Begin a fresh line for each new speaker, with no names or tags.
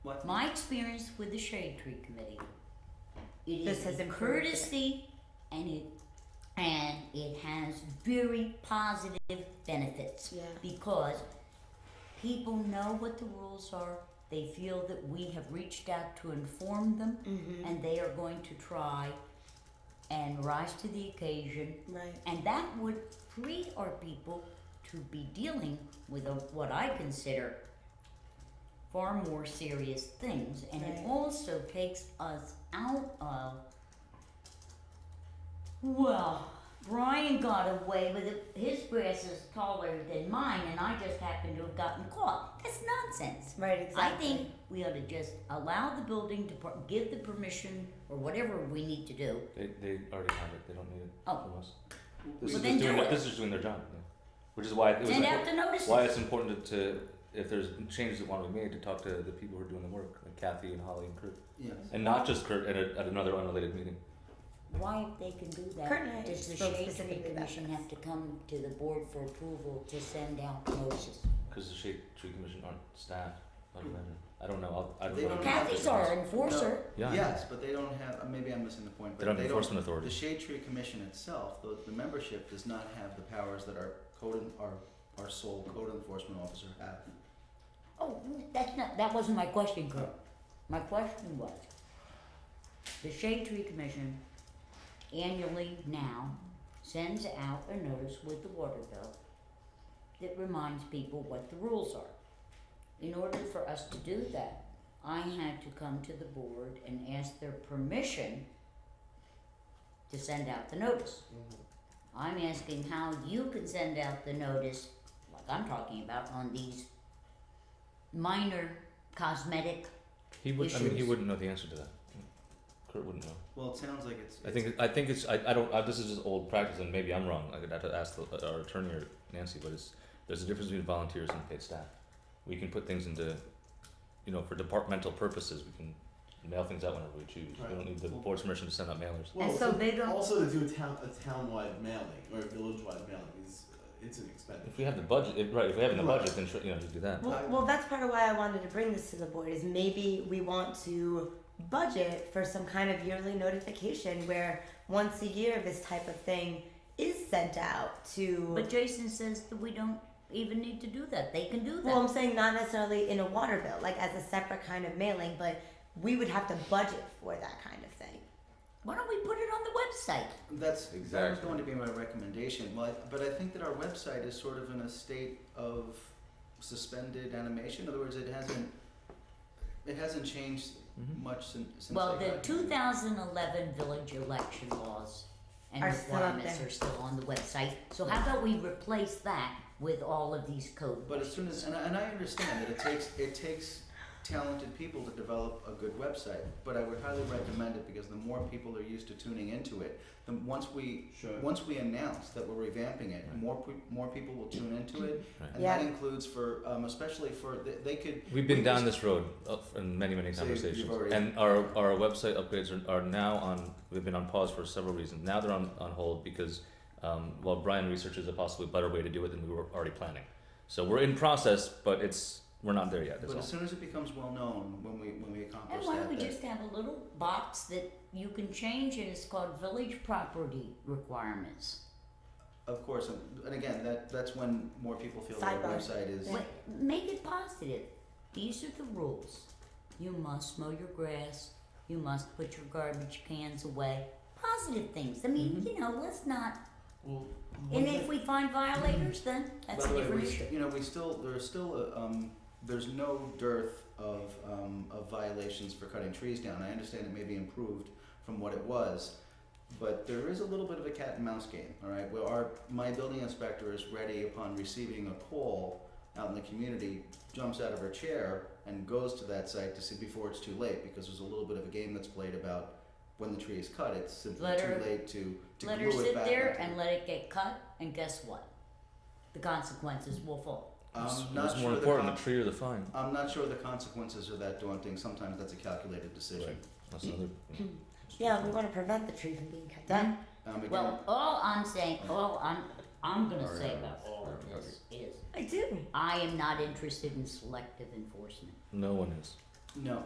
What's
My experience with the Shade Tree Committee, it
This
is
has
a
improved it.
courtesy and it, and it has very positive benefits.
Yeah.
Because people know what the rules are, they feel that we have reached out to inform them,
Mm-hmm.
and they are going to try and rise to the occasion
Right.
and that would free our people to be dealing with a, what I consider far more serious things. And it
Right.
also takes us out of, well, Brian got away with it. His grass is taller than mine, and I just happen to have gotten caught. That's nonsense.
Right.
I
Exactly.
think we ought to just allow the building to par- give the permission or whatever we need to do.
They, they already have it. They don't need it
Oh.
from us.
Well,
This is
then
just doing
do
their-
it.
this is just doing their job, yeah. which is why it was
Send
impor-
out the notices.
why it's important to, to if there's changes that want to be made to talk to the people who are doing the work, like Kathy and Holly and Kurt,
Yes.
and not just Kurt at, a, at another unrelated meeting.
Why, if they can do
Kurt and I
that, does the shade
spoke
tree
specifically about
commission
this.
have to come to the board for approval to send out notices?
Because the Shade Tree Commission aren't staff. I don't imagine. I don't know. I'll, I don't
They
know.
don't have
Kathy's our enforcer.
Yeah.
Yes, but they don't have. uh, Maybe I'm missing the point.
They
But
don't
they
have
don't.
enforcement
The
authority.
Shade Tree Commission itself, the, the membership does not have the powers that our code, en- our, our sole code enforcement officer have.
Oh, that's not, that wasn't my question, Kurt. My question was, the shade tree commission annually now sends out a notice with the water bill that reminds people what the rules are. In order for us to do that, I had to come to the board and ask their permission to send out the notice. I'm asking how you can send out the notice, like I'm talking about, on these minor cosmetic,
He would. I mean, he
issues.
wouldn't know the answer to that. Kurt wouldn't know.
Well, it sounds like it's.
I think. I think it's. I. I don't. I, this is just old practice, and maybe I'm wrong. I'd have to ask the, uh, our attorney or Nancy. But it's there's a difference between volunteers and paid staff. We can put things into, you know, for departmental purposes. We can mail things out whenever we choose. We don't need the board's permission to send out mailers.
and so they don't.
Also, to do a town a town-wide mailing or a village-wide mailing is uh, it's an expense.
If we have the budget, if, right? If we have it in the
Right.
budget, then sure, you know, just do that.
I-
Well, well, that's part of why I wanted to bring this to the board is maybe we want to budget for some kind of yearly notification where once a year this type of thing is sent out to.
But Jason says that we don't even need to do that. They can do that.
well, I'm saying not necessarily in a water bill, like as a separate kind of mailing, but we would have to budget for that kind of thing.
Why don't we put it on the website?
That's that was
Exactly.
going to be my recommendation. Well, I- but I think that our website is sort of in a state of suspended animation. In other words, it hasn't it hasn't changed
Mhm.
much since. since
Well,
I
the
got here.
2011 village election laws and
Are still up
requirements
there.
are still on the website. So how about we replace that with all of these code?
But as soon as and I, and I understand that it takes it takes talented people to develop a good website, but I would highly recommend it because the more people are used to tuning into it, the once we
Sure.
once we announce that we're revamping it,
Right.
more pe- more people will tune into it,
Right.
and that
Yeah.
includes for um, especially for they, they could
We've
we
been down
just-
this road of- in many, many
So you've- you've
conversations,
already-
and our our website upgrades are, are now on. We've been on pause for several reasons. Now they're on, on hold because um, while Brian researches a possibly better way to do it than we were already planning, so we're in process, but it's we're not there yet. That's
But as
all.
soon as it becomes well known when we when we accomplish
and why
that,
don't we
that-
just have a little box that you can change and it's called village property requirements?
of course, and, and again that that's when more people feel that our
Sidebar.
website is
Wait, make it positive. These are the rules. You must mow your grass. You must put your garbage cans away. Positive things. I mean, you know, let's not.
Well,
And if we find violators, then
By the
that's a
way,
different
we-
issue.
You know, we still there's still a, um, there's no dearth of um, of violations for cutting trees down. I understand it may be improved from what it was, but there is a little bit of a cat and mouse game. All right, where our my building inspector is ready upon receiving a call out in the community, jumps out of her chair and goes to that site to see before it's too late because there's a little bit of a game that's played about when the tree is cut. It's simply
Let
too
her-
late to to
Let
glue
her
it
sit
back
there
onto-
and let it get cut, and guess what? The consequences will fall.
What's-
I'm
what's
um, not
more
sure the
important,
con-
the tree or the fine?
I'm not sure the consequences are that daunting. Sometimes that's a calculated decision.
That's another.
Yeah, we want to prevent the tree from being cut down.
Um, again,
Well, all I'm saying, all I'm, I'm gonna say about this is,
I do.
I am not interested in selective enforcement.
No one is.
no,